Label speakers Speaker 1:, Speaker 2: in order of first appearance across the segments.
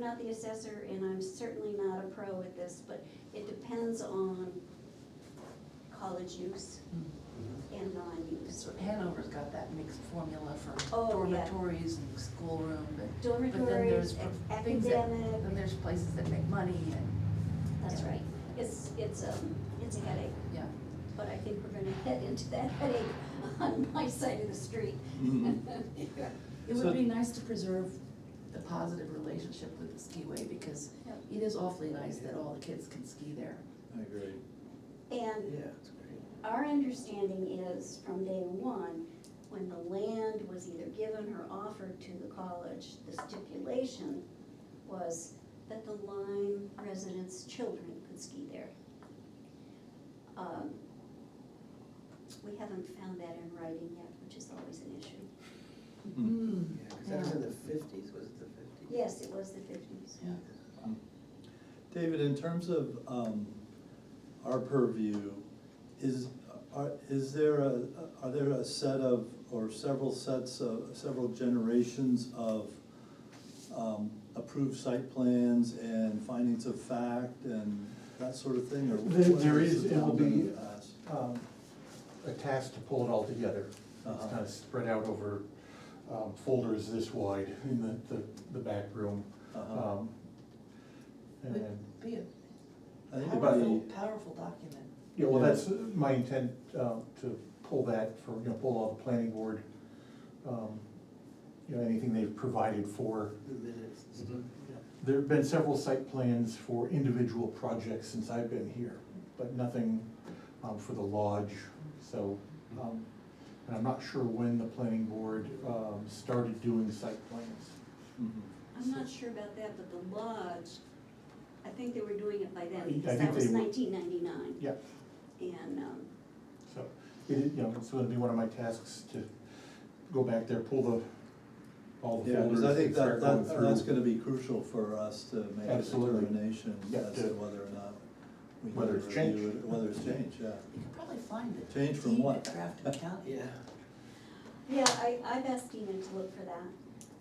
Speaker 1: not the assessor and I'm certainly not a pro at this, but it depends on college use and non-use.
Speaker 2: So Hanover's got that mixed formula for
Speaker 1: Oh, yeah.
Speaker 2: dormitories and schoolroom, but but then
Speaker 1: Dormitories,
Speaker 2: there's for
Speaker 1: ac-
Speaker 2: things that,
Speaker 1: academic,
Speaker 2: then there's places that make money and,
Speaker 1: that's right. It's, it's, um, it's a headache,
Speaker 2: yeah.
Speaker 1: but I think we're gonna head into that headache on my side of the street. Yeah.
Speaker 2: It
Speaker 3: So-
Speaker 2: would be nice to preserve the positive relationship with the skiway because
Speaker 1: Yep.
Speaker 2: it is awfully nice that all the kids can ski there.
Speaker 3: I agree.
Speaker 1: And
Speaker 3: it's
Speaker 1: Our understanding is from day one, when the land was either given or offered to the college, the stipulation was that the Lyme residents' children could ski there. Um, We haven't found that in writing yet, which is always an issue.
Speaker 3: great.
Speaker 4: Yeah, because that was in the fifties, was it the fifties?
Speaker 1: Yes, it was the fifties.
Speaker 2: Yeah.
Speaker 3: David, in terms of um, our purview, is, are, is there a, are there a set of, or several sets of, several generations of um, approved site plans and findings of fact and that sort of thing, or?
Speaker 5: There-
Speaker 3: what
Speaker 5: there
Speaker 3: has
Speaker 5: is,
Speaker 3: the
Speaker 5: it will
Speaker 3: town done in
Speaker 5: be-
Speaker 3: the past?
Speaker 5: um, a task to pull it all together. It's
Speaker 3: Uh-huh.
Speaker 5: kind of spread out over um, folders this wide in the, the, the back room.
Speaker 3: Uh-huh.
Speaker 5: Um, And,
Speaker 2: Would
Speaker 5: then-
Speaker 2: be a
Speaker 3: I think
Speaker 2: powerful,
Speaker 3: it'd be,
Speaker 2: powerful document.
Speaker 5: yeah, well,
Speaker 3: Yeah.
Speaker 5: that's my intent, um, to pull that for, you know, pull all the planning board, um, you know, anything they've provided for.
Speaker 4: The minutes. Yeah.
Speaker 5: There have been several site plans for individual projects since I've been here, but nothing um, for the lodge, so. um, And I'm not sure when the planning board um, started doing site plans.
Speaker 3: mhm.
Speaker 1: I'm not sure about that, but the lodge, I think they were doing it by
Speaker 5: I
Speaker 1: then,
Speaker 5: think
Speaker 1: because that
Speaker 5: they
Speaker 1: was
Speaker 5: were.
Speaker 1: nineteen ninety-nine.
Speaker 5: Yeah,
Speaker 1: And, um,
Speaker 5: so, it, is- you know, it's gonna be one of my tasks to go back there, pull the, all the
Speaker 3: Yeah,
Speaker 5: folders
Speaker 3: because I think
Speaker 5: and
Speaker 3: that,
Speaker 5: start going
Speaker 3: that,
Speaker 5: through.
Speaker 3: that's gonna be crucial for us to make a
Speaker 5: Absolutely.
Speaker 3: determination
Speaker 5: Yeah,
Speaker 3: as to
Speaker 5: to-
Speaker 3: whether or not we need to
Speaker 5: Whether it's
Speaker 3: review
Speaker 5: changed.
Speaker 3: it, whether it's changed, yeah.
Speaker 2: You could probably find it.
Speaker 3: Change from what?
Speaker 2: Draft account.
Speaker 4: Yeah.
Speaker 1: Yeah, I, I've asked Dina to look for that.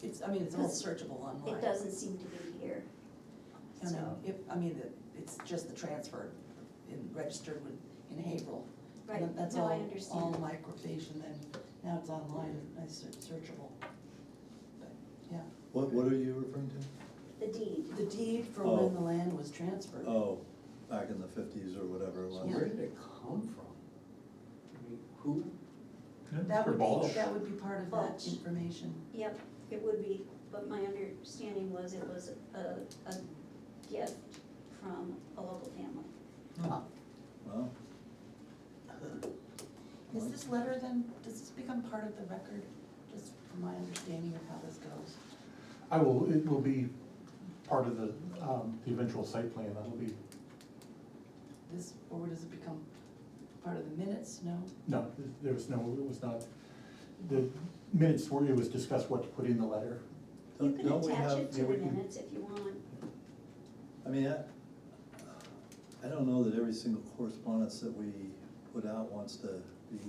Speaker 2: It's, I mean, it's all searchable online.
Speaker 1: It doesn't seem to be here.
Speaker 2: I mean,
Speaker 1: So,
Speaker 2: if, I mean, the- it's just the transfer in, registered with, in Haverhill. And
Speaker 1: right,
Speaker 2: That's
Speaker 1: no,
Speaker 2: all,
Speaker 1: I
Speaker 2: all
Speaker 1: understand.
Speaker 2: microfiche and then now it's online, and it's search- searchable. But, yeah,
Speaker 3: What, what are you referring to?
Speaker 1: The deed.
Speaker 2: the deed for
Speaker 3: Oh.
Speaker 2: when the land was transferred.
Speaker 3: Oh, back in the fifties or whatever it
Speaker 4: So
Speaker 3: was.
Speaker 4: where did it come from? I mean, Who?
Speaker 5: Yeah,
Speaker 2: That
Speaker 5: for
Speaker 2: would
Speaker 5: Balch.
Speaker 2: be, that would be part of that
Speaker 1: Balch.
Speaker 2: information.
Speaker 1: Yep, it would be, but my understanding was it was a, a gift from a local family.
Speaker 3: Well,
Speaker 2: Is this letter then, does this become part of the record, just from my understanding of how this goes?
Speaker 5: I will, it will be part of the, um, the eventual site plan, that'll be,
Speaker 2: This, or does it become part of the minutes, no?
Speaker 5: no, there was no, it was not, the minutes were, it was discussed what to put in the letter.
Speaker 1: You
Speaker 3: don't
Speaker 1: can
Speaker 3: don't Uh, we
Speaker 1: attach
Speaker 3: have-
Speaker 1: it to
Speaker 3: yeah,
Speaker 1: the
Speaker 3: we can-
Speaker 1: minutes if you want.
Speaker 3: I mean, I, I don't know that every single correspondence that we put out wants to be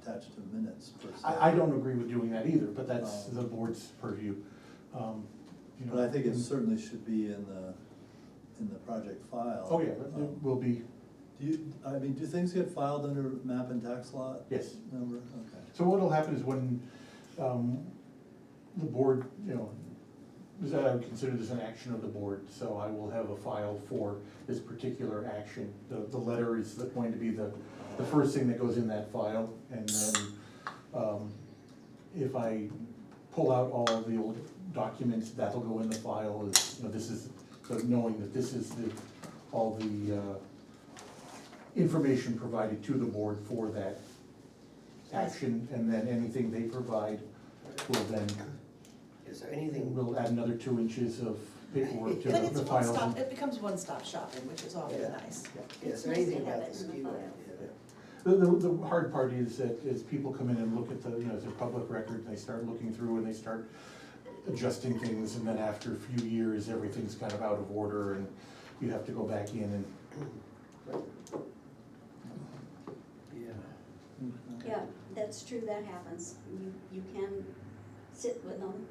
Speaker 3: attached to minutes per se.
Speaker 5: I, I don't agree with doing that either, but that's
Speaker 3: Um,
Speaker 5: the board's purview. Um, you know,
Speaker 3: But I think it certainly should be in the, in the project file.
Speaker 5: Oh, yeah, but there
Speaker 3: Um,
Speaker 5: will be,
Speaker 3: Do you, I mean, do things get filed under map and tax law?
Speaker 5: Yes.
Speaker 3: Number, okay.
Speaker 5: so what'll happen is when, um, the board, you know, is that I would consider this an action of the board, so I will have a file for this particular action. The, the letter is the- going to be the, the first thing that goes in that file, and then, um, if I pull out all the old documents, that'll go in the file, is, you know, this is, so knowing that this is the, all the, uh, information provided to the board for that action, and then anything they provide will then
Speaker 4: Is there anything?
Speaker 5: We'll add another two inches of paperwork to the
Speaker 2: But
Speaker 5: files.
Speaker 2: it's one stop,
Speaker 5: and-
Speaker 2: it becomes one-stop shopping, which is always
Speaker 4: Yeah.
Speaker 2: nice.
Speaker 4: Is
Speaker 1: It's
Speaker 4: there
Speaker 1: nice to
Speaker 4: anything
Speaker 1: have
Speaker 4: about the
Speaker 1: it in the
Speaker 4: ski
Speaker 1: file.
Speaker 4: way?
Speaker 5: yeah. The, the, the hard part is that as people come in and look at the, you know, it's a public record, they start looking through and they start adjusting things, and then after a few years, everything's kind of out of order, and you have to go back in and,
Speaker 4: Yeah.
Speaker 3: Mm,
Speaker 1: Yeah, that's true, that happens. You, you can sit with them